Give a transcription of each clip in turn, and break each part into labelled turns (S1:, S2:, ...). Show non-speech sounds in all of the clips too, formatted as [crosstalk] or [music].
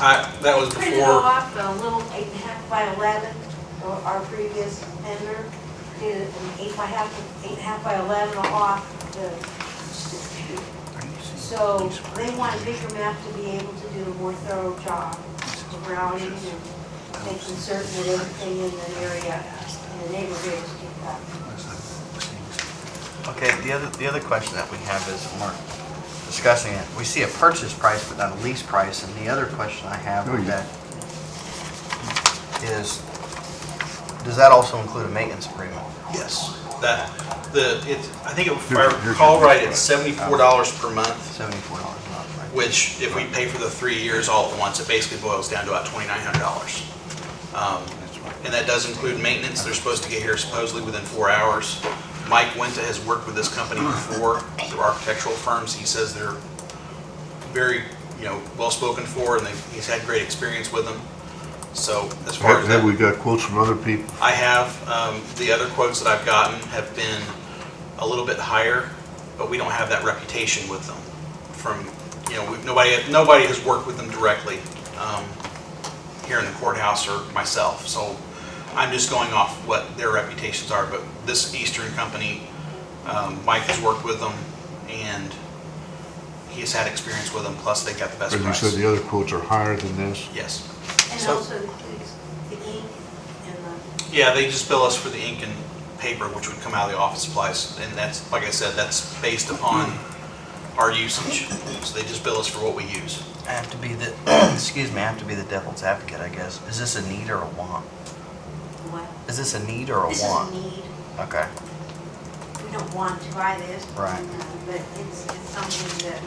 S1: I, that was
S2: Printed
S1: before,
S2: off a little eight and a half by eleven, or our previous vendor did an eight by half, eight and a half by eleven off the. So they want a bigger map to be able to do a more thorough job of routing and making certain that everything in the area, in the neighborhood is picked up.
S3: Okay, the other, the other question that we have is, and we're discussing it, we see a purchase price but not a lease price, and the other question I have with that is, does that also include a maintenance agreement?
S1: yes, that, the, it's, I think if I recall right, it's seventy-four dollars per month,
S3: Seventy-four dollars a month, right?
S1: which if we pay for the three years all at once, it basically boils down to about twenty-nine hundred dollars. Um, And that does include maintenance, they're supposed to get here supposedly within four hours. Mike Winta has worked with this company before, through architectural firms, he says they're very, you know, well-spoken for, and they- he's had great experience with them. So as far
S4: Have
S1: as
S4: have
S1: that,
S4: we got quotes from other people?
S1: I have, um, the other quotes that I've gotten have been a little bit higher, but we don't have that reputation with them from, you know, we- nobody, nobody has worked with them directly um, here in the courthouse or myself. So I'm just going off what their reputations are, but this Eastern company, um, Mike has worked with them and he has had experience with them, plus they got the best
S4: And you said
S1: price.
S4: the other quotes are higher than this?
S1: Yes.
S2: And
S1: So-
S2: also includes the ink and the,
S1: Yeah, they just bill us for the ink and paper, which would come out of the office supplies, and that's, like I said, that's based upon our usage. So they just bill us for what we use.
S3: I have to be the, [clears throat] excuse me, I have to be the devil's advocate, I guess. Is this a need or a want?
S2: what?
S3: Is this a need or a
S2: This is a
S3: want?
S2: need.
S3: Okay,
S2: we don't want to buy this.
S3: Right.
S2: uh, But it's, it's something that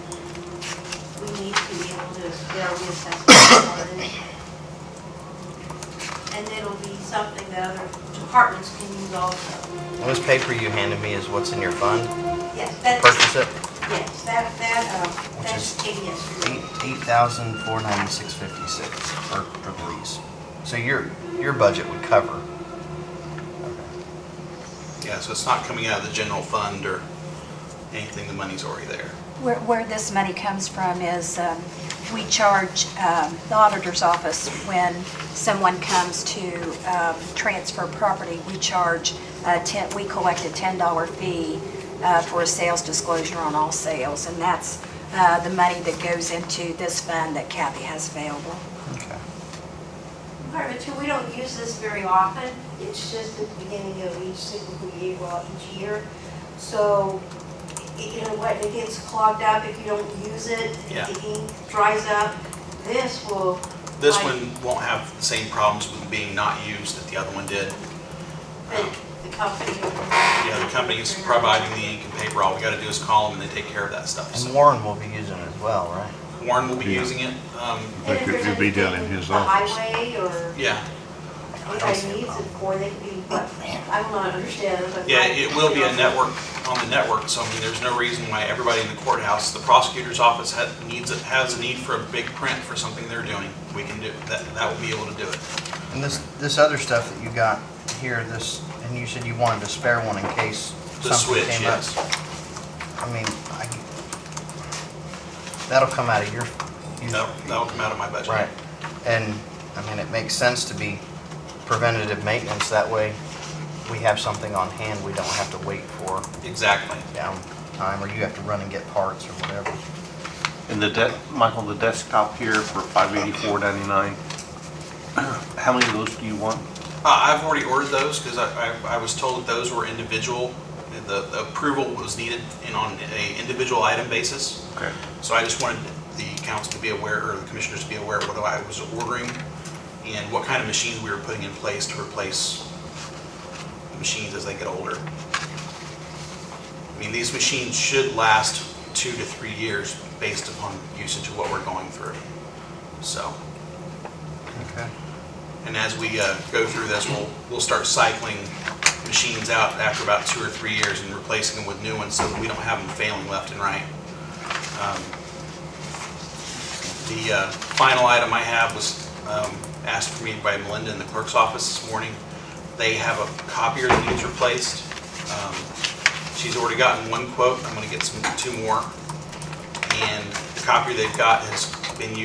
S2: we need to be able to, they'll reassess it. And it'll be something that other departments can use also.
S3: this paper you handed me is what's in your fund,
S2: Yes, that's,
S3: purchase it,
S2: yes, that, that, uh,
S3: Which
S2: that's
S3: is E-
S2: taken yesterday.
S3: eight, eight thousand four ninety-six fifty-six for, for the lease. So your, your budget would cover.
S1: Yeah, so it's not coming out of the general fund or anything, the money's already there.
S5: Where, where this money comes from is, um, we charge um, the auditor's office when someone comes to um, transfer property, we charge a 10, we collect a $10 fee uh, for a sales disclosure on all sales, and that's uh, the money that goes into this fund that Kathy has available.
S3: Okay.
S2: Part of it too, we don't use this very often. It's just at the beginning of each single year, well, each year. So, y- you know what, it gets clogged up if you don't use it.
S1: Yeah.
S2: The ink dries up. This will
S1: This
S2: Right.
S1: one won't have the same problems with being not used that the other one did.
S2: But the company.
S1: uh, Yeah, the company's providing the ink and paper, all we gotta do is call them and they take care of that stuff.
S3: And
S1: So
S3: Warren will be using it as well, right?
S1: Warren will be
S4: Yeah.
S1: using it, um,
S2: And if
S4: Like,
S2: there's
S4: it'd be down
S2: anything
S4: in his
S2: the
S4: office.
S2: Highway or
S1: yeah.
S2: anybody needs it for, they can be, but I will not understand. but
S1: Yeah,
S2: my-
S1: it will be a
S2: you know,
S1: network, on the network, so I mean, there's no reason why everybody in the courthouse, the prosecutor's office had, needs, it has a need for a big print for something they're doing, we can do, that, that will be able to do it.
S3: And this, this other stuff that you got here, this, and you said you wanted a spare one in case
S1: The
S3: something
S1: switch,
S3: came up.
S1: yes.
S3: I mean, I, that'll come out of your, you
S1: That'll, that'll come out of my budget.
S3: Right. And, I mean, it makes sense to be preventative maintenance, that way we have something on hand we don't have to wait for
S1: Exactly.
S3: downtime, or you have to run and get parts or whatever.
S6: And the de Michael, the desktop here for five eighty-four ninety-nine, [clears throat] how many of those do you want?
S1: Uh, I've already ordered those, because I, I, I was told that those were individual, the the approval was needed in, on a individual item basis.
S6: Okay.
S1: So I just wanted the council to be aware, or the commissioners to be aware of what I was ordering and what kind of machines we were putting in place to replace machines as they get older. I mean, these machines should last two to three years based upon usage of what we're going through. So,
S3: Okay.
S1: and as we uh, go through this, we'll, we'll start cycling machines out after about two or three years and replacing them with new ones so that we don't have them failing left and right. Um, The uh, final item I have was um, asked for me by Melinda in the clerk's office this morning. They have a copier that needs replaced. Um, She's already gotten one quote, I'm going to get some, two more. And the copier they've got has been used